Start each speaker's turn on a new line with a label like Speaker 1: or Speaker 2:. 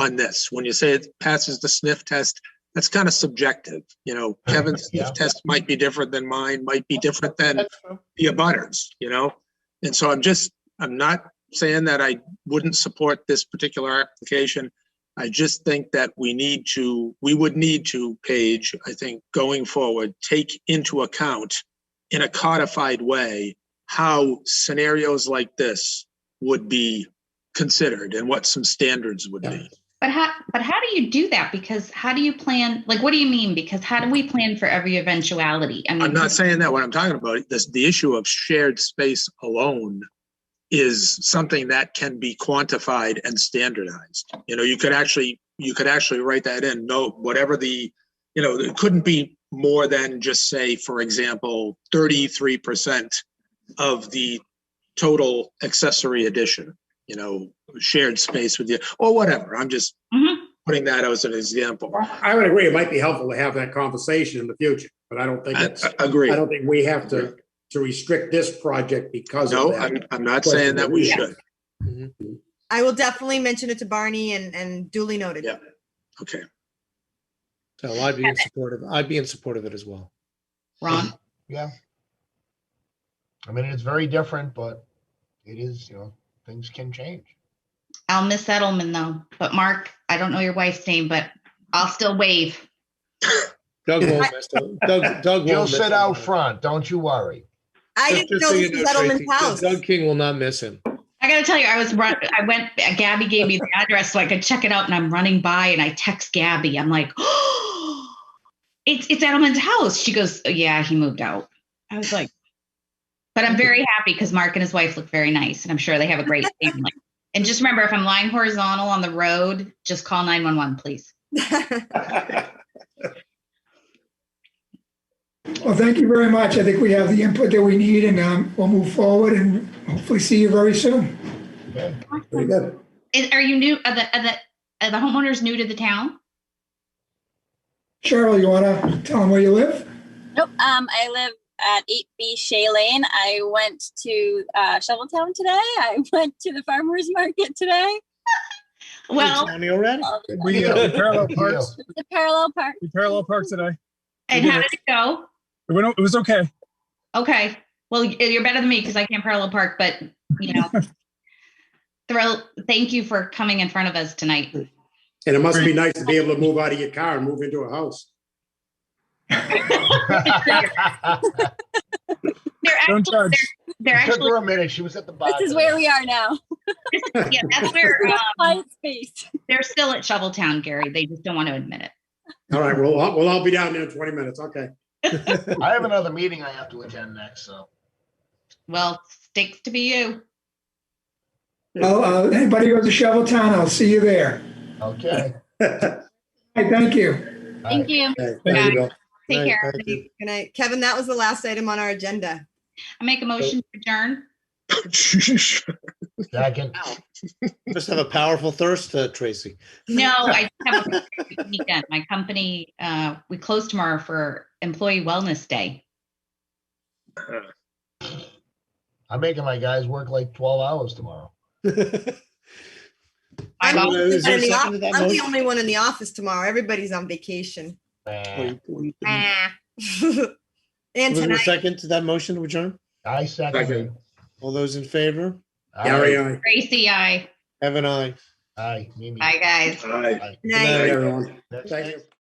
Speaker 1: on this. When you say it passes the sniff test, that's kind of subjective. You know, Kevin's
Speaker 2: Yeah.
Speaker 1: sniff test might be different than mine, might be different than
Speaker 2: That's true.
Speaker 1: the abutters, you know? And so I'm just, I'm not saying that I wouldn't support this particular application. I just think that we need to, we would need to, Paige, I think, going forward, take into account in a codified way how scenarios like this would be considered and what some standards would
Speaker 2: Yeah.
Speaker 1: be.
Speaker 3: But how, but how do you do that? Because how do you plan, like, what do you mean? Because how do we plan for every eventuality? I mean,
Speaker 1: I'm not saying that. What I'm talking about, this, the issue of shared space alone is something that can be quantified and standardized. You know, you could actually, you could actually write that in, no, whatever the, you know, it couldn't be more than just say, for example, thirty-three percent of the total accessory addition, you know, shared space with you, or whatever. I'm just
Speaker 3: Mhm.
Speaker 1: putting that as an example.
Speaker 4: I would agree, it might be helpful to have that conversation in the future, but I don't think
Speaker 1: I,
Speaker 4: it's,
Speaker 1: I
Speaker 4: I
Speaker 1: agree.
Speaker 4: don't think we have to, to restrict this project because of
Speaker 1: No, I'm,
Speaker 4: that.
Speaker 1: I'm not saying that we should.
Speaker 5: I will definitely mention it to Barney and, and duly noted.
Speaker 1: Yeah. Okay.
Speaker 6: So I'd be in support of, I'd be in support of it as well.
Speaker 3: Ron,
Speaker 2: I mean, it's very different, but it is, you know, things can change.
Speaker 3: I'll miss Edelman though. But Mark, I don't know your wife's name, but I'll still wave.
Speaker 6: Doug won't mess, Doug, Doug
Speaker 2: You'll
Speaker 6: won't.
Speaker 2: sit out front, don't you worry.
Speaker 5: I didn't know this was Edelman's house.
Speaker 6: Doug King will not miss him.
Speaker 3: I gotta tell you, I was run. I went. Gabby gave me the address so I could check it out, and I'm running by, and I text Gabby. I'm like, "Oh, it's it's Edelman's house." She goes, oh, "Yeah, he moved out." I was like, "But I'm very happy because Mark and his wife look very nice, and I'm sure they have a great family." And just remember, if I'm lying horizontal on the road, just call 911, please.
Speaker 7: Well, thank you very much. I think we have the input that we need and um, we'll move forward and hopefully see you very soon.
Speaker 2: Okay.
Speaker 4: Very good.
Speaker 3: Is, are you new? Are the are the are the homeowners new to the town?
Speaker 7: Cheryl, you want to tell them where you live?
Speaker 8: Nope. Um, I live at 8B Shea Lane. I went to uh, Shoveltown today. I went to the farmers market today.
Speaker 3: Well,
Speaker 6: County already?
Speaker 8: All the-
Speaker 9: We uh, we parallel
Speaker 2: Good
Speaker 9: parks.
Speaker 8: The parallel park.
Speaker 9: We parallel parked today.
Speaker 3: and how did it go?
Speaker 9: It went. o- It was okay.
Speaker 3: Okay. Well, y- you're better than me because I can't parallel park, but you know. Thrill, thank you for coming in front of us tonight.
Speaker 4: And it must be nice to be able to move out of your car and move into a house.
Speaker 3: They're
Speaker 9: Don't
Speaker 3: actually,
Speaker 9: judge.
Speaker 3: they're, they're
Speaker 2: It Took
Speaker 3: actually,
Speaker 2: her a minute, she was at the bottom.
Speaker 8: This is where we are now.
Speaker 3: yeah, that's where, um,
Speaker 8: Quiet space.
Speaker 3: they're still at Shoveltown, Gary. They just don't want to admit it.
Speaker 4: All right, we'll, all- we'll all be down there in 20 minutes, okay.
Speaker 2: I have another meeting I have to attend next, so.
Speaker 3: Well, sticks to be you.
Speaker 7: Well, uh, anybody who goes to Shovel Town, I'll see you there.
Speaker 2: Okay.
Speaker 7: Hey, thank you.
Speaker 8: Thank you.
Speaker 4: Okay, there you go.
Speaker 3: Take care.
Speaker 6: Right, thank you.
Speaker 3: everybody.
Speaker 5: Good night. Kevin, that was the last item on our agenda.
Speaker 3: I make a motion to adjourn.
Speaker 2: Second.
Speaker 6: Must have a powerful thirst, uh, Tracy.
Speaker 3: No, I have a weekend. My company, uh, we close tomorrow for Employee Wellness Day.
Speaker 2: I'm making my guys work like twelve hours tomorrow.
Speaker 3: I've
Speaker 5: I'm the
Speaker 3: al-
Speaker 5: only
Speaker 6: Is there
Speaker 5: one in the
Speaker 6: second to that
Speaker 5: off- I'm the
Speaker 6: motion?
Speaker 5: only one in the office tomorrow. Everybody's on vacation.
Speaker 2: Eh,
Speaker 6: Was
Speaker 5: Ah. And
Speaker 6: there a
Speaker 5: tonight,
Speaker 6: second to that motion to adjourn?
Speaker 2: I second. it.
Speaker 6: All those in favor?
Speaker 4: Gary,
Speaker 2: Aye,
Speaker 4: aye.
Speaker 3: Tracy, I.
Speaker 6: Have an eye.
Speaker 2: aye, Mimi.
Speaker 3: Bye, guys.
Speaker 1: All right.
Speaker 2: Aye.
Speaker 5: night.
Speaker 4: Good night, everyone.
Speaker 2: Next
Speaker 4: Thank you.